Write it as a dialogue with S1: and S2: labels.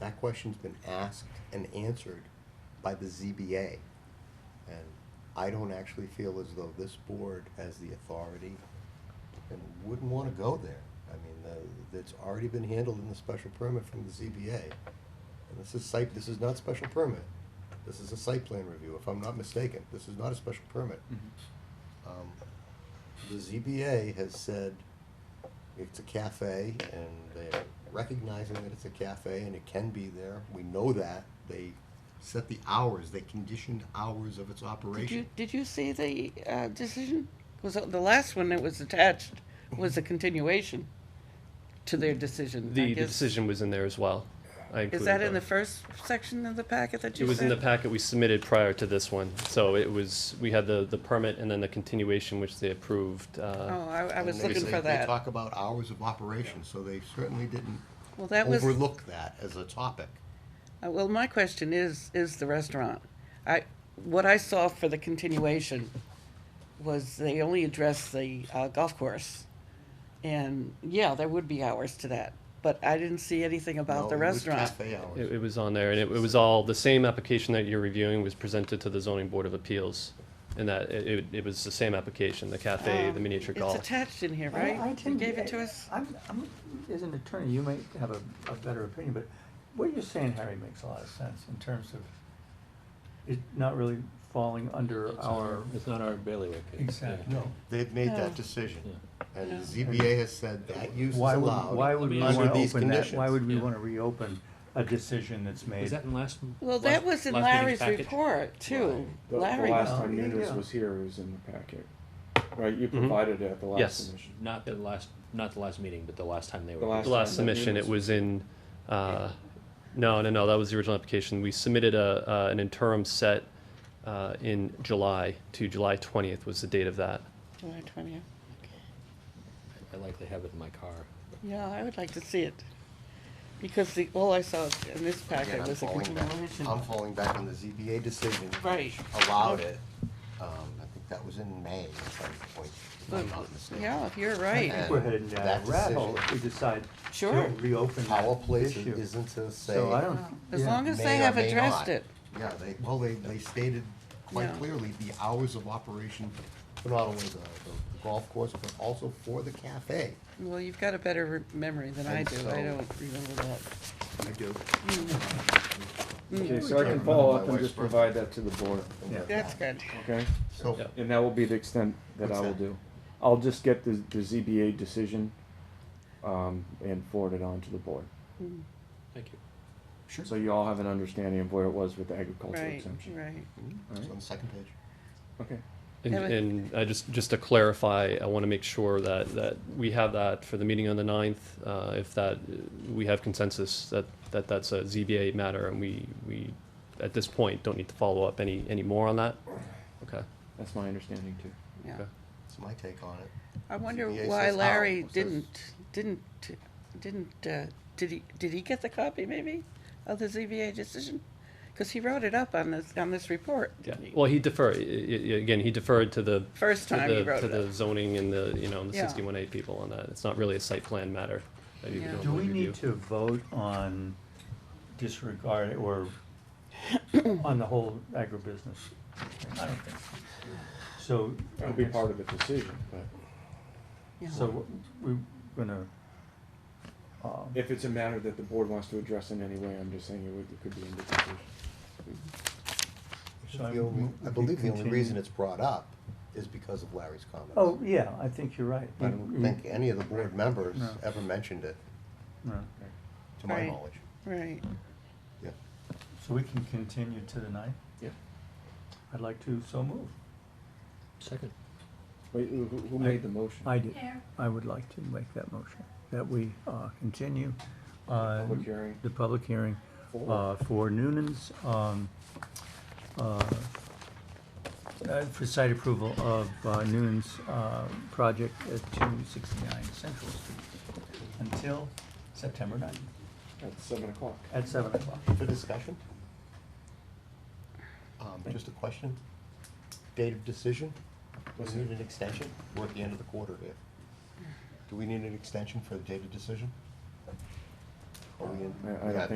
S1: That question's been asked and answered by the ZBA. And I don't actually feel as though this board has the authority and wouldn't wanna go there. I mean, the, it's already been handled in the special permit from the ZBA. And this is site, this is not special permit. This is a site plan review, if I'm not mistaken. This is not a special permit.
S2: Mm-hmm.
S1: Um, The ZBA has said it's a cafe and they're recognizing that it's a cafe and it can be there. We know that. They set the hours, they conditioned hours of its
S2: Did you,
S1: operation.
S2: did you see the uh, decision? Was it- the last one that was attached was a continuation to their decision. I
S3: The, the
S2: guess-
S3: decision was in there as well. I
S2: Is
S3: included
S2: that in the
S3: both.
S2: first section of the packet that you sent?
S3: It was in the packet we submitted prior to this one, so it was, we had the, the permit and then the continuation which they approved.
S2: Oh,
S3: uh,
S2: I, I was
S1: And they
S2: looking
S1: say-
S2: for
S1: They
S2: that.
S1: talk about hours of operation, so they certainly didn't
S2: Well, that was, uh,
S1: overlook that as a topic.
S2: well, my question is, is the restaurant. I, what I saw for the continuation was they only addressed the uh, golf course. And, yeah, there would be hours to that, but I didn't see anything
S1: No,
S2: about the
S1: it was
S2: restaurant.
S1: Cafe
S3: It,
S1: hours.
S3: it was on there, and it, it was all, the same application that you're reviewing was presented to the zoning board of appeals. And that, it, it- it was the same application, the cafe, the
S2: Um,
S3: miniature
S2: It's
S3: golf.
S2: attached in here,
S4: I-
S2: right?
S4: I
S2: You
S4: tend-
S2: gave it to us?
S4: I'm, I'm, as an attorney, you might have a, a better opinion, but what you're saying, Harry, makes a lot of sense in terms of it not really falling under our,
S5: It's not our bailiwick. it's-
S4: Exactly.
S1: No, they've made that
S2: No.
S1: decision. And
S2: No.
S1: the ZBA has said that use is
S4: why would,
S1: allowed
S4: why would we
S5: Under
S4: wanna
S1: these
S4: open that, why
S1: conditions.
S4: would we
S5: Yeah.
S4: wanna reopen a decision that's
S5: Was
S4: made?
S5: that in last?
S2: Well,
S5: last-
S2: that was in
S5: last meeting's
S2: Larry's
S5: package?
S2: report too.
S6: The, the
S2: Larry,
S6: last
S4: Oh,
S6: time
S4: yeah,
S6: Nunes
S4: yeah.
S6: was here, it was in the packet. Right, you provided it at the last
S3: Yes.
S6: submission.
S5: Not the last, not the last meeting, but the last time they were.
S6: The
S3: The last
S6: time that
S3: submission, it
S6: Nunes-
S3: was in, uh, no, no, no, that was the original application. We submitted a, uh, an interim set, uh, in July, to July twentieth was the date of that.
S2: July twentieth.
S5: I likely have it in my car.
S2: Yeah, I would like to see it. Because the, all I saw in this
S1: Again,
S2: packet
S1: I'm
S2: was a
S1: falling back-
S2: continuation.
S1: I'm falling back on the ZBA decision.
S2: Right.
S1: which Allowed it, um, I think that was in May at some point, if I'm not
S2: But,
S1: mistaken.
S2: Yeah, if you're
S4: I
S2: right.
S1: And
S4: think we're heading down
S1: that
S4: a rat hole
S1: decision-
S4: if we decide
S2: Sure.
S4: to reopen
S1: Power
S4: that
S1: place
S4: issue.
S1: isn't to say.
S4: So I don't,
S2: As
S4: yeah.
S2: long as
S1: may
S2: they
S1: or
S2: have
S1: may
S2: addressed
S1: not.
S2: it.
S1: Yeah, they, well, they, they stated quite
S2: Yeah.
S1: clearly the hours of operation, for not only the, the golf course, but also for the cafe.
S2: Well, you've got a better re- memory than I
S1: And
S2: do.
S1: so-
S2: I don't remember that.
S1: I do.
S2: Mm.
S6: Okay,
S1: I
S6: so I can
S1: remember
S6: follow
S1: my
S6: up and
S1: wife's
S6: just
S1: birthday.
S6: provide that to the board,
S4: Yeah.
S2: That's good.
S6: okay?
S1: So,
S3: Yeah.
S6: And that will be the extent that
S1: What's
S6: I will
S1: that?
S6: do. I'll just get the, the ZBA decision, um, and forward it on to the board.
S5: Thank you.
S1: sure,
S6: So
S1: so
S6: you all have an understanding of where it was with the agricultural
S2: Right,
S6: exemption.
S2: right.
S6: Alright,
S1: on the second page.
S6: okay.
S3: And,
S2: Yeah, but-
S3: and I just, just to clarify, I want to make sure that, that we have that for the meeting on the ninth. Uh, if that, uh, we have consensus that, that that's a ZBA matter and we, we, at this point, don't need to follow up any, any more on that? Okay.
S6: That's my understanding too.
S2: Yeah.
S3: Okay.
S1: That's my take on it.
S2: I wonder
S1: ZBA
S2: why
S1: says how,
S2: Larry
S1: says-
S2: didn't, didn't, didn't, uh, did he, did he get the copy maybe of the ZBA decision? Because he wrote it up on this, on this report,
S3: Yeah,
S2: didn't he?
S3: well, he deferred, again, he deferred to the.
S2: First
S3: to
S2: time he
S3: the-
S2: wrote
S3: To
S2: it
S3: the
S2: up.
S3: zoning and the, you know, and the
S2: Yeah.
S3: sixty-one A people on that. It's not really a site plan matter that you
S2: Yeah.
S3: can
S2: Do
S4: Do
S3: normally
S4: we
S3: review.
S4: need to vote on disregard or on the whole agribusiness? I don't think so. So.
S6: It'll be part of the decision, but
S2: Yeah.
S4: So we're gonna, um,
S6: if it's a matter that the board wants to address in any way, I'm just saying it would, it could be in the decision.
S4: So I
S1: The only-
S4: move
S1: I
S4: we
S1: believe the only
S4: continue.
S1: reason it's brought up is because of Larry's comments.
S4: oh, yeah, I think you're right.
S1: I don't think any of the board members
S4: No.
S1: ever mentioned it,
S4: No.
S1: to my
S2: Right.
S1: knowledge.
S2: Right.
S1: Yeah.
S4: So we can continue to the ninth?
S6: Yeah.
S4: I'd like to, so move.
S5: Second.
S6: Wait, who, who- who made the motion?
S4: I do. I would like to make that motion, that we, uh, continue, uh.
S6: Public hearing.
S4: The public hearing,
S6: For?
S4: uh, for Noonan's, um, uh, uh, for site approval of uh, Noonan's, uh, project at two sixty-nine Central Street until September ninth,
S6: At seven o'clock.
S4: at seven o'clock.
S1: For discussion? Um, just a question. Date of decision? Do we need an extension? We're at the end of the quarter here. Do we need an extension for the date of decision? Are we in?
S6: I- I don't
S1: Yeah,
S6: think